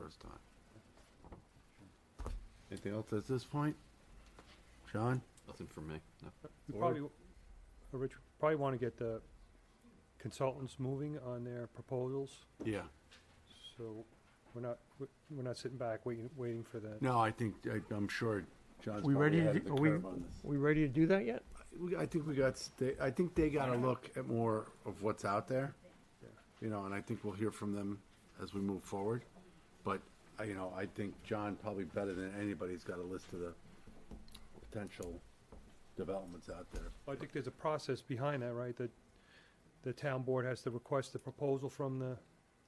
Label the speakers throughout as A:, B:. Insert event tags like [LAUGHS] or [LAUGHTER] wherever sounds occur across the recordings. A: last time. Anything else at this point? John?
B: Nothing for me, no.
C: We
A: Or-
C: probably, w- uh, Rich, probably want to get the consultants moving on their proposals,
A: Yeah.
C: so we're not, we- we're not sitting back waiting, waiting for that.
A: No, I think, I, I'm sure John's
D: We
A: probably
D: ready to
A: ahead of
D: do-
A: the
D: are we-
A: curve on this.
D: We ready to do that yet?
A: We- I think we got, sta- I think they got a look at more of what's out there. You know, and I think we'll hear from them as we move forward. But, I- you know, I think John probably better than anybody's got a list of the potential developments out there.
C: I think there's a process behind that, right? That the town board has to request a proposal from the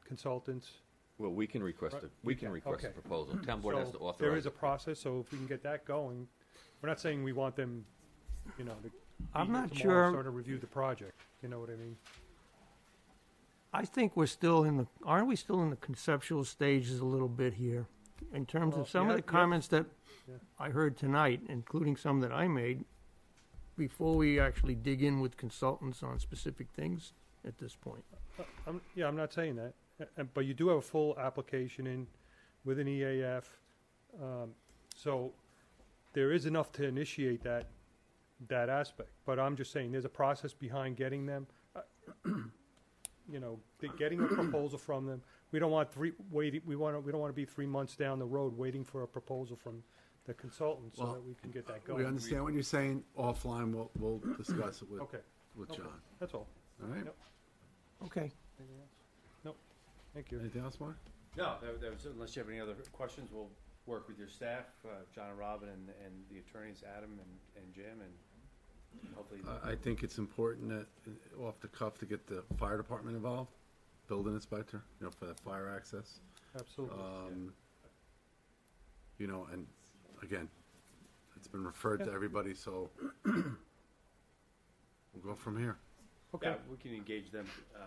C: consultants.
B: Well, we can request
C: Right,
B: it, we
C: you
B: can
C: can,
B: request a
C: okay.
B: proposal. Town board has
C: So
B: to
C: There
B: authorize
C: is a
B: it.
C: process, so if we can get that going, we're not saying we want them, you know, to. be
D: I'm
C: here tomorrow
D: not
C: and
D: sure-
C: Sort of review the project, you know what I mean?
D: I think we're still in the, aren't we still in the conceptual stages a little bit here? In terms
C: Well,
D: of some
C: yeah,
D: of the
C: yeah.
D: comments that
C: Yeah.
D: I heard tonight, including some that I made, before we actually dig in with consultants on specific things at this point.
C: I'm, yeah, I'm not saying that, Uh, uh, but you do have a full application in with an EAF. Um, so there is enough to initiate that, that aspect, but I'm just saying there's a process behind getting them. uh, [CLEARS THROAT] You know, the- getting a proposal from them. We don't want three, waiting, we want to, we don't want to be three months down the road waiting for a proposal from the consultant so
A: Well,
C: that we can get that
A: We
C: going.
A: understand what you're saying. Offline, we'll, we'll discuss it with,
C: Okay,
A: with
C: okay.
A: John.
C: that's all.
A: All right?
C: Yep.
D: Okay.
C: Anything else? Nope, thank you.
A: Anything else, Mark?
E: No, that, that was, unless you have any other questions, we'll work with your staff, uh, John and Robin and, and the attorneys, Adam and, and Jim, and hopefully.
A: Uh, I, I think it's important that, uh, off the cuff, to get the fire department involved, building inspector, you know, for that fire access.
C: Absolutely.
A: Um, you know, and again, it's been referred to
C: Yeah.
A: everybody, so [CLEARS THROAT] we'll go from here.
C: Okay.
E: Yeah, we can engage them, uh,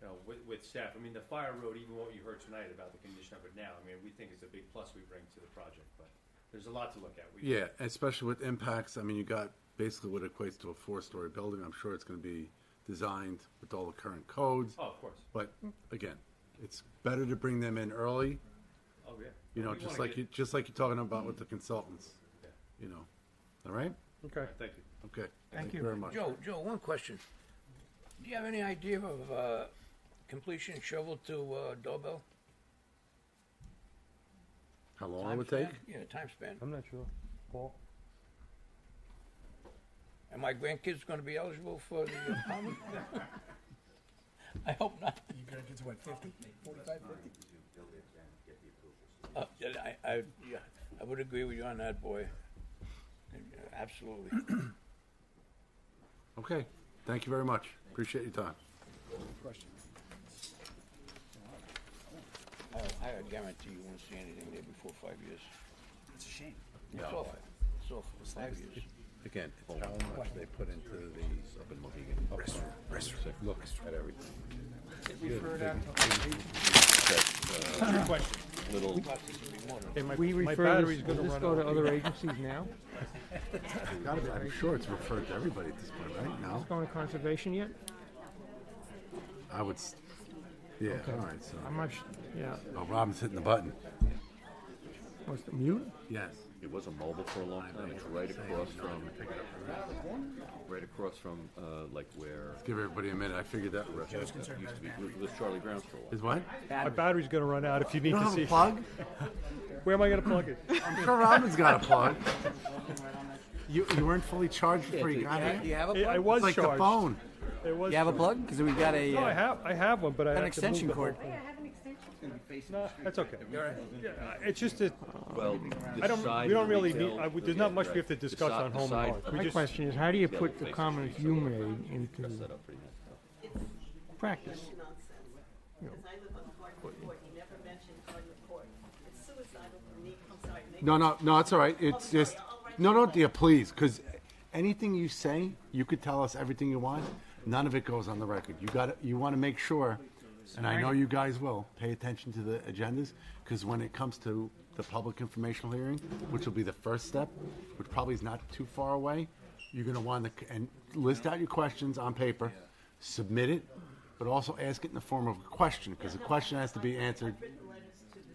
E: you know, with, with staff. I mean, the fire road, even what you heard tonight about the condition of it now, I mean, we think it's a big plus we bring to the project, but there's a lot to look at. We-
A: Yeah, especially with impacts, I mean, you got basically what equates to a four-story building. I'm sure it's gonna be designed with all the current codes.
E: Oh, of course.
A: But again, it's better to bring them in early,
E: Oh, yeah.
A: you know,
E: We
A: just
E: wanna
A: like
E: get-
A: you, just like you're talking about with the consultants,
E: Yeah.
A: you know. All right?
C: Okay.
E: Thank you.
A: Okay.
D: Thank you.
A: Very much.
F: Joe, Joe, one question. Do you have any idea of uh, completion shovel to uh, doorbell?
A: How long it would
F: Time
A: take?
F: span? Yeah, time span.
C: I'm not sure. Paul?
F: Are my grandkids going to be eligible for the uh, [LAUGHS] permit? I hope not.
G: Your grandkids, what, 50, 45, 50?
F: Uh, yeah, I, I, yeah, I would agree with you on that, boy. Absolutely.
A: Okay. Thank you very much. Appreciate your time.
G: Question.
F: I, Oh, I guarantee you won't see anything there before five years.
G: It's a shame.
F: It's all five. It's all five years.
A: Again, it's how much they put into the. Look at everything.
B: Little,
C: Hey, my,
D: We
C: my
D: refer,
C: battery's
D: this-
C: gonna
D: does this
C: run
D: go to
C: out.
D: other agencies now?
A: I'm sure it's referred to everybody at this point, right? No?
D: Going to conservation yet?
A: I would, s- yeah, all right, so.
D: I'm not, sh- yeah,
A: Oh, Robin's hitting the button.
D: what's the mute?
A: Yes.
B: it was a mobile for a long time, it's right across from, right across from, uh, like where,
A: Give everybody a minute. I figured that.
B: it used to be, it was Charlie Brown's for a while.
A: Is what?
C: My battery's gonna run out if you need
A: You
C: to
A: don't have
C: see.
A: a
C: it.
A: plug?
C: Where am I
A: [LAUGHS]
C: gonna plug it?
A: I'm sure Robin's got a plug. [LAUGHS] You, you weren't fully charged before you got
G: Do you
A: here?
G: have a
C: It- I
G: plug?
C: was
A: It's like the
C: charged.
A: phone.
C: It was.
G: You have a
C: charged.
G: plug? Because we got a,
C: No, I
G: uh,
C: have. I have one, but I have
G: an
C: to
G: extension
C: move the
G: cord.
C: whole- No, that's okay. Yeah, it's just that
B: Well,
C: I don't. We don't really need. I, would- there's not much we have to discuss on home and
B: side,
C: hearth.
B: uh,
C: We
D: My
C: just.
D: question is, how do you
B: yeah,
D: put the
B: faces,
D: comments
B: so
D: you
B: we
D: made
B: dress
D: into
B: that up pretty nice.
D: practice?
H: Because I live on Cardinal Court, you never mentioned Cardinal Court. It's suicidal for me, I'm sorry, maybe.
A: No, no, no, it's all right. It's
H: Oh, sorry,
A: just,
H: I'll write
A: no,
H: you a
A: no,
H: letter.
A: dear, please, because anything you say, you could tell us everything you want. None of it goes on the record. You got, you want to make sure, and I know you guys will, pay attention to the agendas, because when it comes to the public informational hearing, which will be the first step, which probably is not too far away, you're going to want to, and list out your questions on paper, submit it, but also ask it in the form of a question, because the question has to be answered